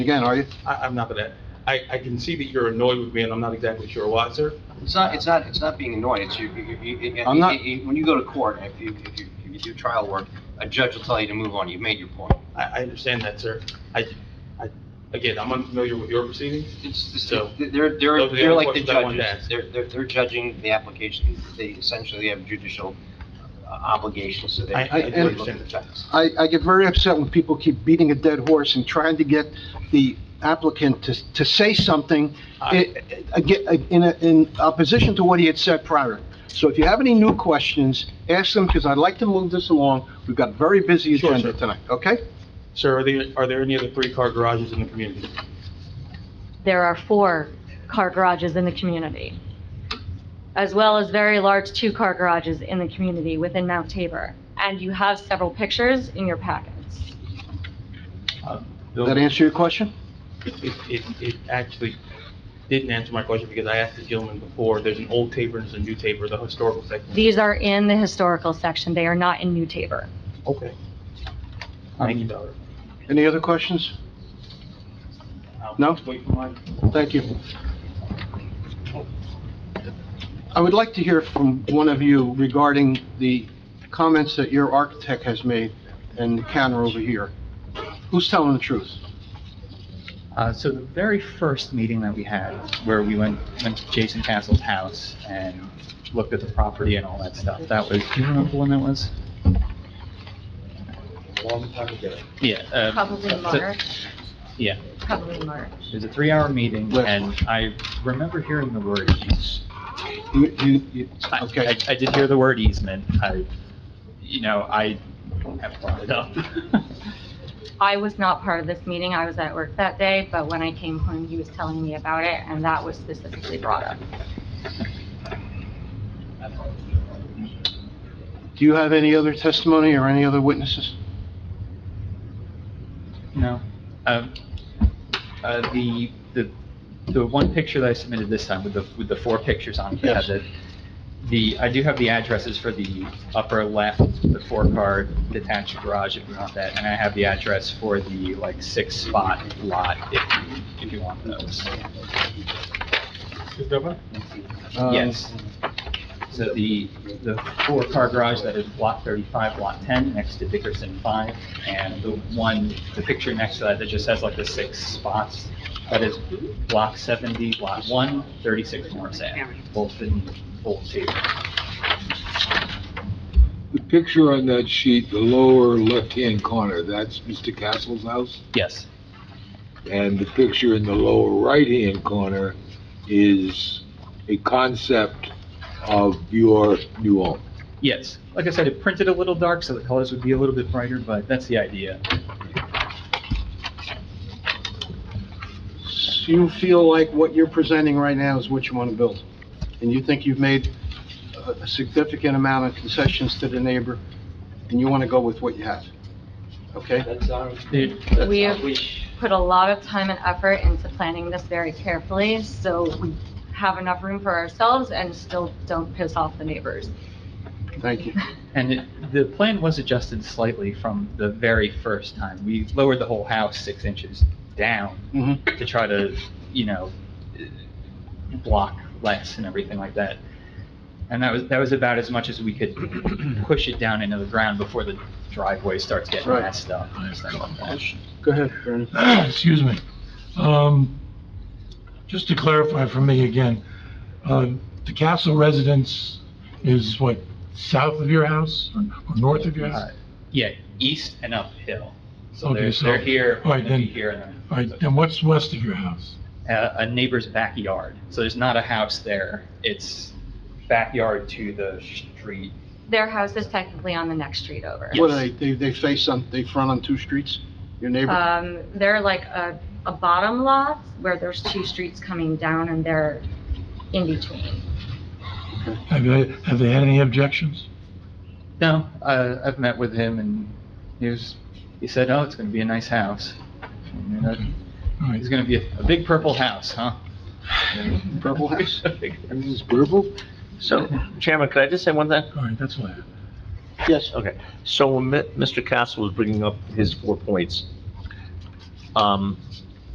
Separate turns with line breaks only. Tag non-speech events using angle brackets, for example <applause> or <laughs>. again, are you?
I, I'm not gonna, I, I can see that you're annoyed with me, and I'm not exactly sure why, sir.
It's not, it's not, it's not being annoyed, it's you, you, you- you-
I'm not-
you- you- when you go to court, if you, if you, if you do trial work, a judge will tell you to move on, you've made your point.
I, I understand that, sir. I, I, again, I'm unfamiliar with your proceedings.
It's, it's,
So,
they're,
those
they're,
are the
they're
only
like the
questions I wanted to
judges,
ask.
they're, they're, they're judging the application, they essentially have judicial uh, obligations, so they.
I- I
they
do
look at the facts.
I, I get very upset when people keep beating a dead horse and trying to get the applicant to, to say something eh, i- i- ag- in, a- in opposition to what he had said prior. So if you have any new questions, ask them, because I'd like to move this along. We've got a very busy
Sure,
agenda
sir.
tonight, okay?
Sir, are there, are there any other three-car garages in the community?
there are four car garages in the community, as well as very large two-car garages in the community within Mount Tabor. And you have several pictures in your packets.
Uh,
Does that answer your question?
It, it, it actually didn't answer my question, because I asked the gentleman before, there's an old Tabor and there's a new Tabor, the historical section.
These are in the historical section, they are not in New Tabor.
Okay. Thank
Um,
you, Doctor.
Any other questions?
I'll
No?
Wait for mine.
Thank you. I would like to hear from one of you regarding the comments that your architect has made and the counter over here. Who's telling the truth?
Uh, so the very first meeting that we had, where we went, went to Jason Castle's house and looked at the property and all that stuff, that was, do you remember when that was?
Long time ago.
Yeah, um,
Probably
so- Yeah,
probably March.
it was a three-hour meeting,
Last
and I remember hearing the word easement.
You- you- you-
I-
Okay,
I, I did hear the word easement, I, you know, I have brought it up. <laughs>
I was not part of this meeting, I was at work that day, but when I came home, he was telling me about it, and that was specifically brought up.
do you have any other testimony or any other witnesses?
No. Um, uh, the, the, the one picture that I submitted this time with the, with the four pictures on it,
Yes.
had the, the, I do have the addresses for the upper left, the four-car detached garage, if you want that, and I have the address for the, like, six-spot lot, if, you- if you want those.
Mr. Governor?
Um,
Yes. So the, the four-car garage that is block 35, lot 10, next to Dickerson 5, and the one, the picture next to that that just has like the six spots, that is block 70, lot 1, 36 Morris Ave, both in Old Tabor.
The picture on that sheet, the lower left-hand corner, that's Mr. Castle's house?
Yes,
And the picture in the lower right-hand corner is a concept of your new home.
yes. Like I said, it printed a little dark, so the colors would be a little bit brighter, but that's the idea.
So You feel like what you're presenting right now is what you want to build, and you think you've made a a significant amount of concessions to the neighbor, and you want to go with what you have, okay?
It-
We have put a lot of time and effort into planning this very carefully, so we have enough room for ourselves and still don't piss off the neighbors.
Thank you.
And it- the plan was adjusted slightly from the very first time. We lowered the whole house six inches down
Mhm.
to try to, you know, block less and everything like that. And that was, that was about as much as we could <clears throat> push it down into the ground before the driveway starts getting
Right.
messed up and stuff like that.
Go ahead, Vernon.
<clears throat> excuse me. Um, Just to clarify for me again, uh, the Castle residence is what, south of your house or or north of your
Uh,
house?
Yeah, east and uphill. So
Okay,
they're,
so-
they're here,
all right,
gonna be
then-
here and
All
then.
right, then what's west of your house?
a a neighbor's backyard. So there's not a house there. It's backyard to the street.
Their house is technically on the next street over.
What, are they, they they face on, they front on two streets? Your neighbor?
Um, they're like a, a bottom lot where there's two streets coming down and they're in between.
Have they, have they had any objections?
No, uh, I've met with him and he was, he said, oh, it's going to be a nice house. And I-
All right,
It's going to be a, a big purple house, huh?
Purple
<laughs>
house?
Everything's purple?
So, Chairman, could I just say one thing?
all right, that's all I have.
Yes.
Okay, so when Mi- Mr. Castle was bringing up his four points, um,